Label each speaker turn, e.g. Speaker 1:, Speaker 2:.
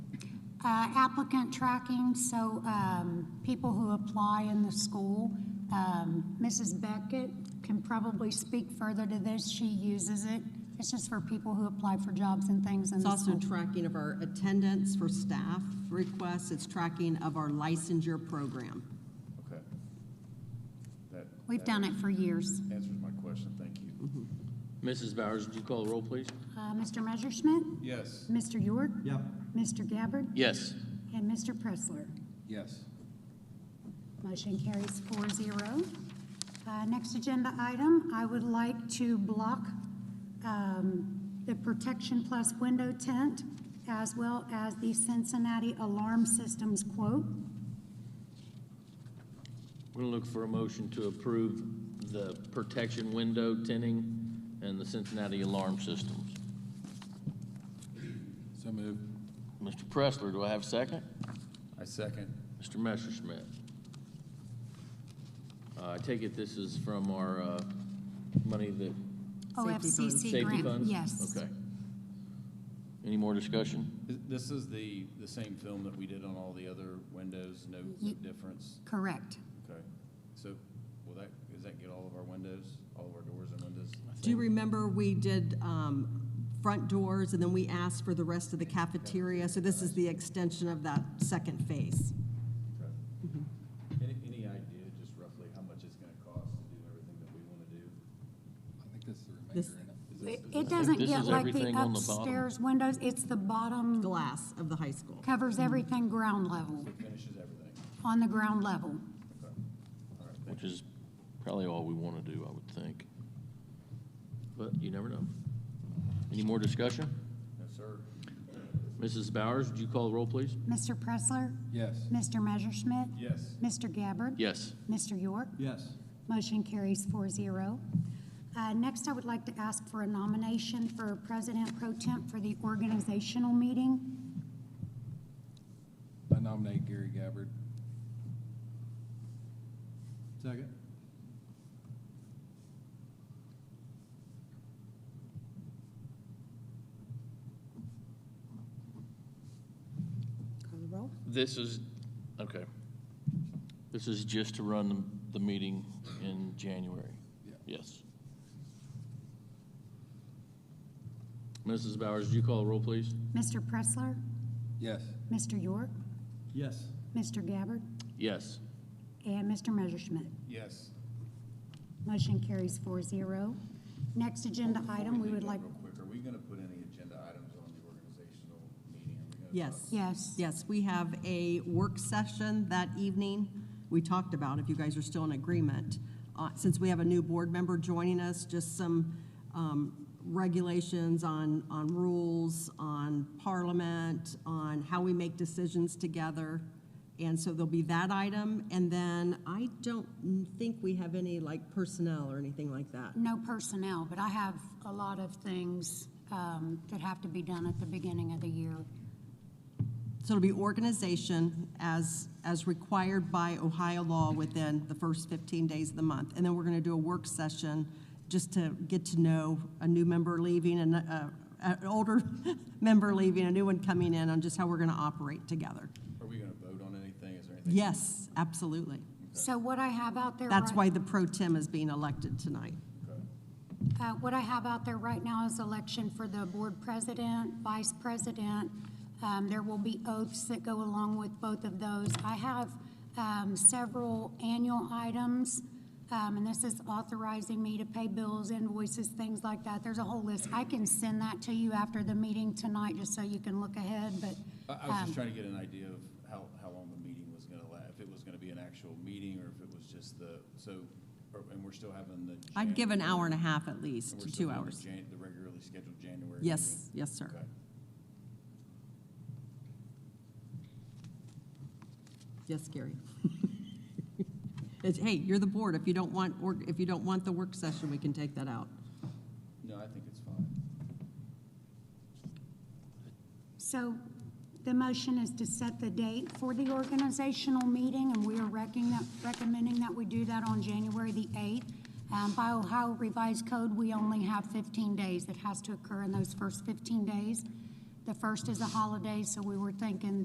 Speaker 1: Uh, Applicant tracking, so um, people who apply in the school, um, Mrs. Beckett can probably speak further to this. She uses it. It's just for people who apply for jobs and things in
Speaker 2: It's
Speaker 1: the
Speaker 2: also
Speaker 1: school.
Speaker 2: tracking of our attendance for staff requests. It's tracking of our licensure program.
Speaker 3: Okay. That
Speaker 1: We've done it for years.
Speaker 3: answers my question, thank you.
Speaker 4: Mrs. Bowers, would you call the roll, please?
Speaker 1: Uh, Mr. Messerschmidt?
Speaker 3: Yes.
Speaker 1: Mr. York?
Speaker 5: Yep.
Speaker 1: Mr. Gabbard?
Speaker 4: Yes.
Speaker 1: And Mr. Pressler?
Speaker 3: Yes.
Speaker 1: Motion carries four zero. Uh, Next agenda item, I would like to block um, the Protection Plus window tent as well as the Cincinnati Alarm Systems quote.
Speaker 4: We're going to look for a motion to approve the protection window tinting and the Cincinnati alarm systems.
Speaker 3: So move.
Speaker 4: Mr. Pressler, do I have a second?
Speaker 3: I second.
Speaker 4: Mr. Messerschmidt. Uh, I take it this is from our uh, money that,
Speaker 1: OFCC
Speaker 4: safety
Speaker 1: grant.
Speaker 4: funds?
Speaker 1: Yes.
Speaker 4: Okay. Any more discussion?
Speaker 3: This is the, the same film that we did on all the other windows, no
Speaker 1: Ye-
Speaker 3: difference?
Speaker 1: Correct.
Speaker 3: Okay. So will that, does that get all of our windows, all of our doors and windows?
Speaker 2: Do you remember we did um, front doors and then we asked for the rest of the cafeteria? So this is the extension of that second phase.
Speaker 3: Okay. Mm-hmm. Any, any idea just roughly how much it's gonna cost to do everything that we wanna do?
Speaker 6: I think that's the remainder
Speaker 2: This-
Speaker 6: in it.
Speaker 1: It it doesn't
Speaker 4: This
Speaker 1: get
Speaker 4: is
Speaker 1: like the
Speaker 4: everything on the bottom.
Speaker 1: upstairs windows. It's the bottom,
Speaker 2: Glass of the high school.
Speaker 1: covers everything ground level,
Speaker 3: It finishes everything.
Speaker 1: on the ground level.
Speaker 3: Okay. All right,
Speaker 4: Which is probably all we want to do, I would think. But you never know. Any more discussion?
Speaker 3: no, sir.
Speaker 4: Mrs. Bowers, would you call the roll, please?
Speaker 1: Mr. Pressler?
Speaker 6: Yes.
Speaker 1: Mr. Messerschmidt?
Speaker 3: Yes.
Speaker 1: Mr. Gabbard?
Speaker 4: Yes.
Speaker 1: Mr. York?
Speaker 5: Yes.
Speaker 1: Motion carries four zero. Uh, Next, I would like to ask for a nomination for President Pro Temp for the organizational meeting.
Speaker 6: I nominate Gary Gabbard.
Speaker 5: Second.
Speaker 1: Call the roll.
Speaker 4: This is, okay. This is just to run the- the meeting in January?
Speaker 6: Yeah.
Speaker 4: Yes. Mrs. Bowers, would you call the roll, please?
Speaker 1: Mr. Pressler?
Speaker 6: Yes.
Speaker 1: Mr. York?
Speaker 5: Yes.
Speaker 1: Mr. Gabbard?
Speaker 4: Yes.
Speaker 1: And Mr. Messerschmidt.
Speaker 3: Yes.
Speaker 1: Motion carries four zero. Next agenda item, we
Speaker 3: do
Speaker 1: would
Speaker 3: that
Speaker 1: like,
Speaker 3: Real quick, are we gonna put any agenda items on the organizational meeting? Are we gonna talk
Speaker 2: Yes.
Speaker 1: yes.
Speaker 2: Yes, we have a work session that evening. We talked about, if you guys are still in agreement, uh, since we have a new board member joining us, just some um, regulations on, on rules, on parliament, on how we make decisions together. And so there'll be that item. And then I don't think we have any like personnel or anything like that.
Speaker 1: No personnel, but I have a lot of things um, that have to be done at the beginning of the year.
Speaker 2: So it'll be organization as, as required by Ohio law within the first 15 days of the month. And then we're going to do a work session just to get to know a new member leaving and uh, an older member leaving, a new one coming in on just how we're going to operate together.
Speaker 3: Are we gonna vote on anything? Is there anything?
Speaker 2: Yes, absolutely.
Speaker 1: So what I have out there.
Speaker 2: That's
Speaker 1: right-
Speaker 2: why the pro tem is being elected tonight.
Speaker 3: Okay.
Speaker 1: Uh, What I have out there right now is election for the board president, vice president. Um, There will be oaths that go along with both of those. I have um, several annual items, um, and this is authorizing me to pay bills, invoices, things like that. There's a whole list. I can send that to you after the meeting tonight, just so you can look ahead, but
Speaker 3: I, I was
Speaker 2: Um,
Speaker 3: just trying to get an idea of how, how long the meeting was gonna last, if it was gonna be an actual meeting or if it was just the, so, or- and we're still having the.
Speaker 2: I'd
Speaker 3: Jan-
Speaker 2: give an hour and a half at least,
Speaker 3: and we're
Speaker 2: to
Speaker 3: still
Speaker 2: two
Speaker 3: doing the
Speaker 2: hours.
Speaker 3: Jan- The regularly scheduled January.
Speaker 2: Yes, yes, sir.
Speaker 3: meeting? Okay.
Speaker 2: Yes, Gary. It's, hey, you're the board. If you don't want, or if you don't want the work session, we can take that out.
Speaker 3: No, I think it's fine.
Speaker 1: So the motion is to set the date for the organizational meeting, and we are recking that- recommending that we do that on January the 8th. Um, By Ohio Revised Code, we only have 15 days. It has to occur in those first 15 days. The first is a holiday, so we were thinking